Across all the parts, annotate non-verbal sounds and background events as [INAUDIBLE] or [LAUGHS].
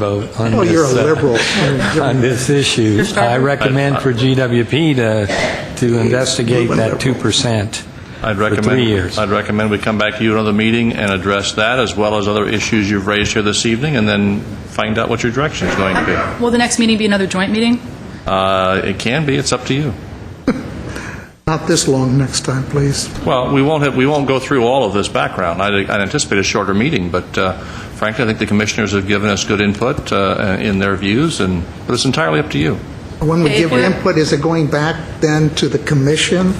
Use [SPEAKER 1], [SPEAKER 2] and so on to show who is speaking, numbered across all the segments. [SPEAKER 1] vote on
[SPEAKER 2] Oh, you're a
[SPEAKER 1] this, uh,
[SPEAKER 2] liberal.
[SPEAKER 1] [LAUGHS] on this issue. I recommend for GWP to, to investigate that 2%
[SPEAKER 3] I'd
[SPEAKER 1] for
[SPEAKER 3] recommend.
[SPEAKER 1] three years.
[SPEAKER 3] I'd recommend we come back to you at another meeting and address that, as well as other issues you've raised here this evening, and then find out what your direction is going to be.
[SPEAKER 4] Will the next meeting be another joint meeting?
[SPEAKER 3] Uh, It can be, it's up to you.
[SPEAKER 2] Not this long next time, please.
[SPEAKER 3] Well, we won't have, we won't go through all of this background. I'd I'd anticipate a shorter meeting, but uh, frankly, I think the commissioners have given us good input uh, in their views, and, but it's entirely up to you.
[SPEAKER 2] When we give
[SPEAKER 4] Okay.
[SPEAKER 2] input, is it going back then to the commission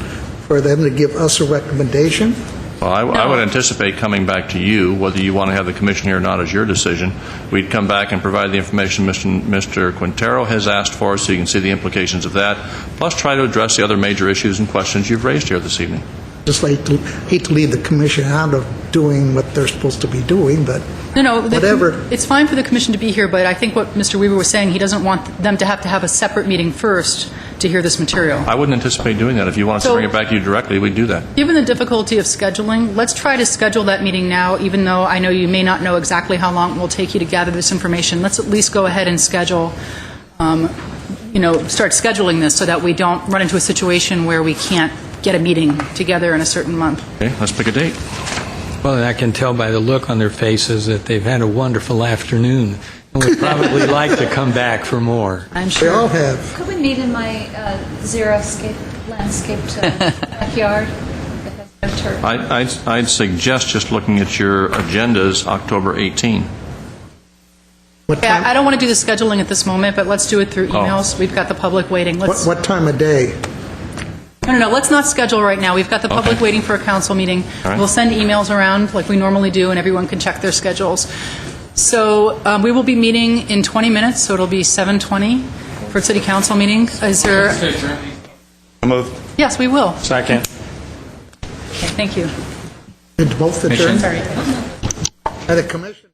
[SPEAKER 2] for them to give us a recommendation?
[SPEAKER 3] Well, I, I
[SPEAKER 4] No.
[SPEAKER 3] would anticipate coming back to you, whether you want to have the commission here or not is your decision. We'd come back and provide the information Mr. Mr. Quintero has asked for, so you can see the implications of that, plus try to address the other major issues and questions you've raised here this evening.
[SPEAKER 2] Just like, to- hate to leave the commission out of doing what they're supposed to be doing, but
[SPEAKER 4] No, no. the-
[SPEAKER 2] Whatever.
[SPEAKER 4] It's fine for the commission to be here, but I think what Mr. Weaver was saying, he doesn't want them to have to have a separate meeting first to hear this material.
[SPEAKER 3] I wouldn't anticipate doing that. If you want us to
[SPEAKER 4] So-
[SPEAKER 3] bring it back to you directly, we'd do that.
[SPEAKER 4] Given the difficulty of scheduling, let's try to schedule that meeting now, even though I know you may not know exactly how long it will take you to gather this information. Let's at least go ahead and schedule, um, you know, start scheduling this so that we don't run into a situation where we can't get a meeting together in a certain month.
[SPEAKER 3] Okay, let's pick a date.
[SPEAKER 1] Well, and I can tell by the look on their faces that they've had a wonderful afternoon and would probably like to come back for more.
[SPEAKER 4] I'm
[SPEAKER 2] they
[SPEAKER 4] sure.
[SPEAKER 2] all have.
[SPEAKER 5] Could we meet in my uh, xeriscape landscaped uh, backyard that has no turf?
[SPEAKER 3] I, I'd, I'd suggest just looking at your agendas, October 18.
[SPEAKER 2] What
[SPEAKER 4] Yeah, I
[SPEAKER 2] time,
[SPEAKER 4] don't want to do the scheduling at this moment, but let's do it
[SPEAKER 3] Oh.
[SPEAKER 4] through emails. We've got the public waiting.
[SPEAKER 2] what
[SPEAKER 4] Let's, no,
[SPEAKER 2] what time of day?
[SPEAKER 4] no, no, let's not schedule right now. We've got the public
[SPEAKER 3] Okay.
[SPEAKER 4] waiting for a council meeting.
[SPEAKER 3] All right.
[SPEAKER 4] We'll send emails around like we normally do, and everyone can check their schedules. So um, we will be meeting in 20 minutes, so it'll be 7:20 for city council meeting. Is there,
[SPEAKER 3] Move.
[SPEAKER 4] yes, we will.
[SPEAKER 3] Second.
[SPEAKER 4] Okay, Thank you.
[SPEAKER 2] Did both adjourn?
[SPEAKER 4] Sorry.
[SPEAKER 2] By the commission?